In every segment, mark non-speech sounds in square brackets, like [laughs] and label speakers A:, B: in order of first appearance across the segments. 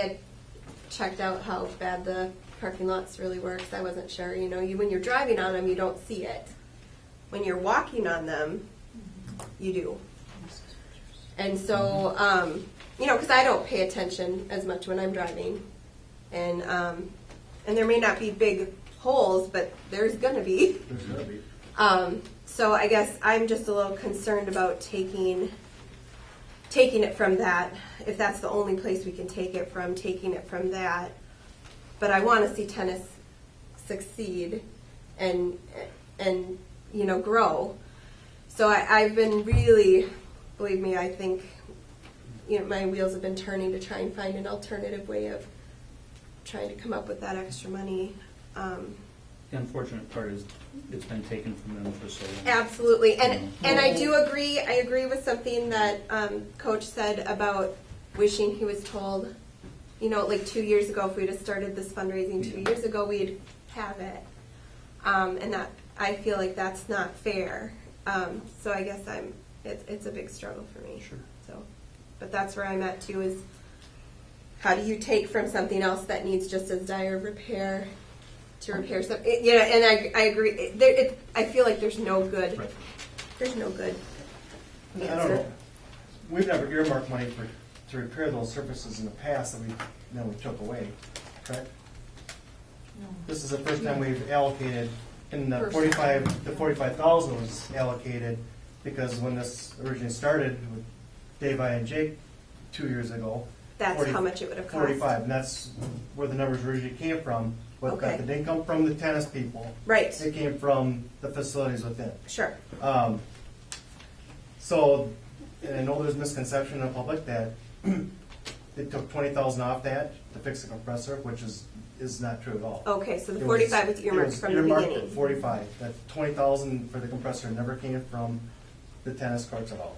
A: I had checked out how bad the parking lots really works. I wasn't sure. You know, you when you're driving on them, you don't see it. When you're walking on them, you do. And so, um, you know, because I don't pay attention as much when I'm driving, and um, and there may not be big holes, but there's gonna be. [laughs] Um, so I guess I'm just a little concerned about taking taking it from that, if that's the only place we can take it from, taking it from that. But I want to see tennis succeed and and you know grow. So I, I've been really, believe me, I think you know my wheels have been turning to try and find an alternative way of trying to come up with that extra money. Um,
B: The unfortunate part is it's been taken from them for so long.
A: Absolutely, and and I do agree. I agree with something that um, Coach said about wishing he was told. You know, like two years ago, if we'd have started this fundraising two
B: Yeah.
A: years ago, we'd have it. Um, and that I feel like that's not fair. Um, so I guess I'm. It's it's a big struggle for me.
B: Sure.
A: So, but that's where I'm at too. Is how do you take from something else that needs just as dire repair to repair some? It, yeah, and I, I agree. It, there, it, I feel like there's no good.
B: Right.
A: There's no good
C: I
A: answer.
C: don't know. We've never earmarked money for, to repair those surfaces in the past that we, then we took away, correct? This is the first time we've allocated, and the
D: First.
C: forty-five, the forty-five thousand was allocated, because when this originally started with Dave, I, and Jake, two years ago.
A: That's
C: 40
A: how much it would have cost.
C: Forty-five, and that's where the numbers originally came from, but
A: Okay.
C: that didn't come from the tennis people.
A: Right.
C: It came from the facilities within.
A: Sure.
C: Um, so, and I know there's misconception in the public that [clears throat] they took twenty thousand off that to fix the compressor, which is, is not true at all.
A: Okay, so Oh, the
C: It was-
A: 45 was earmarked
C: it was
A: from the
C: earmarked at
A: beginning.
C: Forty-five, that twenty thousand for the compressor never came from the tennis courts at all.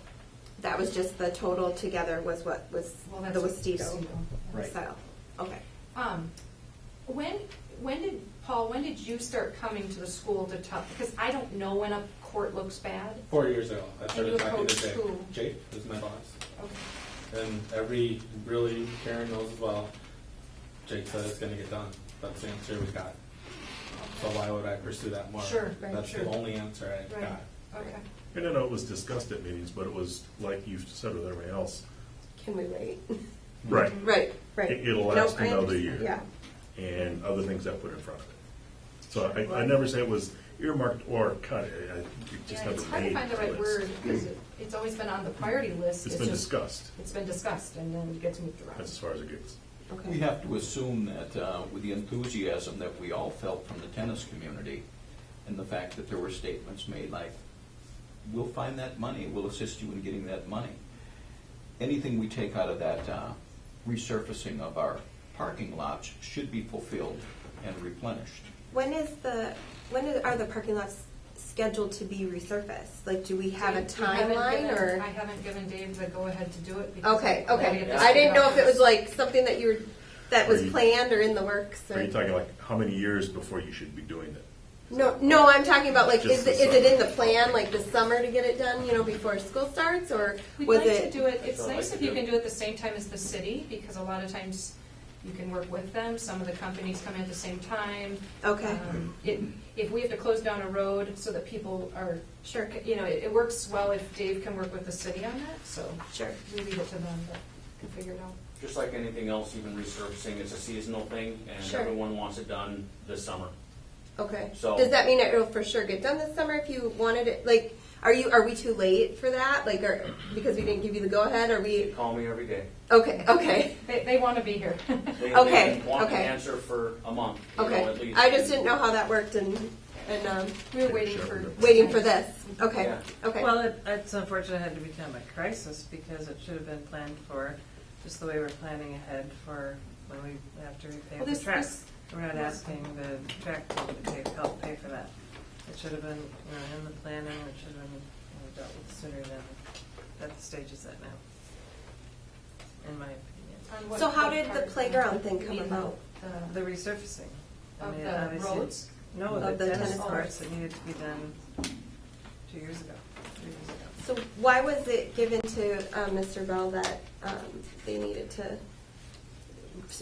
A: That was just the total together was what was
D: Well, that's
A: the
D: what
A: Westito
D: Westito.
C: Right.
A: style. Okay.
D: Um, when, when did, Paul, when did you start coming to the school to talk, because I don't know when a court looks bad.
E: Four years ago, I
D: you
E: started talking to
D: approached
E: Jake.
D: who?
E: Jake is my boss,
D: Okay.
E: and every, really, Karen knows as well, Jake said it's gonna get done, that's the answer we got. So why would I pursue that more?
D: Sure, right,
E: That's the
D: sure.
E: only answer I
D: Right,
E: got.
D: okay.
F: And I know it was discussed at meetings, but it was like you said with everybody else.
A: Can we wait?
F: Right.
A: [laughs] right. Right.
F: It- it'll
A: Nope,
F: last
A: I
F: another
A: understand.
F: year.
A: Yeah.
F: And other things I put in front of it. So I, I never say it was earmarked or cut, I- I- it
D: Yeah,
F: just never
D: it's hard to
F: made
D: find the right
F: the
D: word,
F: list.
D: because it- it's always been on the priority list.
F: It's been
D: just-
F: discussed,
D: It's been discussed, and then it gets moved
F: that's as
D: around.
F: far as it gets.
A: Okay.
G: We have to assume that uh, with the enthusiasm that we all felt from the tennis community and the fact that there were statements made like, we'll find that money, we'll assist you in getting that money. Anything we take out of that uh, resurfacing of our parking lots should be fulfilled and replenished.
A: When is the when is, are the parking lots scheduled to be resurfaced? Like, do we have a
D: Dave, you haven't
A: timeline
D: given-
A: or?
D: I haven't given Dave the go-ahead to do it. because
A: Okay,
D: I gotta
A: okay.
D: get this
A: I didn't
D: figured
A: know
D: out
A: if it was
D: first.
A: like something that you were that was
F: Are you-
A: planned or in the works. Or,
F: Are you talking like, how many years before you should be doing it?
A: No, no. I'm talking about like, is
F: Just
A: it,
F: the
A: is it in the
F: summer.
A: plan like the summer to get it done? You know, before school starts, or
D: We'd
A: was
D: like
A: it?
D: to do it, it's
E: what I
D: nice
E: like
D: if
E: to
D: you
E: do.
D: can do it the same time as the city, because a lot of times you can work with them, some of the companies come in at the same time.
A: Okay.
D: Um, It, if we have to close down a road so that people are, sure, you know, it, it works well if Dave can work with the city on that, so.
A: Sure.
D: We leave it to them, but we'll figure it out.
H: Just like anything else, even resurfacing, it's a seasonal thing, and
A: Sure.
H: everyone wants it done this summer.
A: Okay.
H: So-
A: Does that mean it'll for sure get done this summer if you wanted it? Like, are you are we too late for that? Like, are because we didn't give you the go ahead? Are
H: They
A: we?
H: call me every day.
A: Okay. Okay.
D: They, they want to be here. [laughs]
H: They-
A: Okay,
H: They've been wanting
A: okay.
H: an answer for a month, you know,
A: Okay.
H: at least.
A: I just didn't know how that worked and and um,
D: We were waiting for.
A: waiting for this. Okay.
H: Yeah.
A: Okay.
I: Well, it, it's unfortunate it had to become a crisis because it should have been planned for, just the way we're planning ahead for when we have to
D: Well,
I: repave
D: this-
I: the track.
D: this-
I: We're not asking the track team to pay, help pay for that. It should have been, you know, in the planning, it should have been you know, dealt with sooner than, at the stage it's at now, in my opinion.
D: on what-
A: So how
D: what
A: did the
D: part?
A: playground thing
D: You
A: come
D: mean
A: about?
D: uh,
I: The resurfacing. I
D: Of
I: mean,
D: the
I: obviously-
D: roads?
I: No,
A: Of
I: the
A: the
I: tennis
A: tennis
I: courts that needed to be done two years ago, three years ago.
A: uh, So why was it given to um, Mr. Bell that um, they needed to